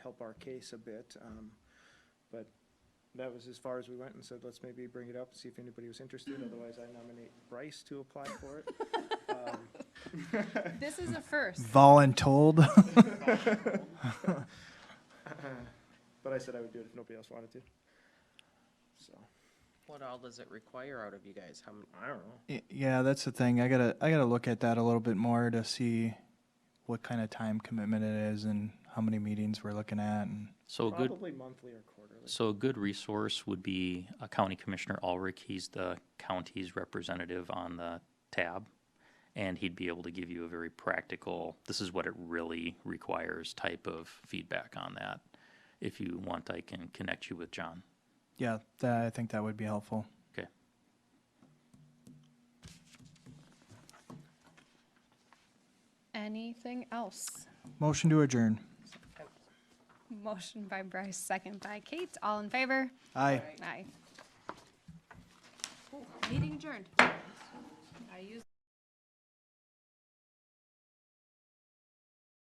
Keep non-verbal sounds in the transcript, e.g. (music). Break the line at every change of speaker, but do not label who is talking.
help our case a bit. Um, But that was as far as we went and said, let's maybe bring it up and see if anybody was interested. Otherwise, I nominate Bryce to apply for it. Um,
This is a first.
Voluntold. (laughs)
But I said I would do it if nobody else wanted to. So,
What all does it require out of you guys? How many?
I don't know.
Y- Yeah, that's the thing. I gotta I gotta look at that a little bit more to see what kind of time commitment it is and how many meetings we're looking at. And
So a good,
Probably monthly or quarterly.
so a good resource would be uh, County Commissioner Ulrich. He's the county's representative on the tab. And he'd be able to give you a very practical, this is what it really requires type of feedback on that. If you want, I can connect you with John.
yeah, that, I think that would be helpful.
Okay.
Anything else?
Motion to adjourn.
Motion by Bryce, second by Kate. All in favor?
Aye.
Aye. Meeting adjourned. I use.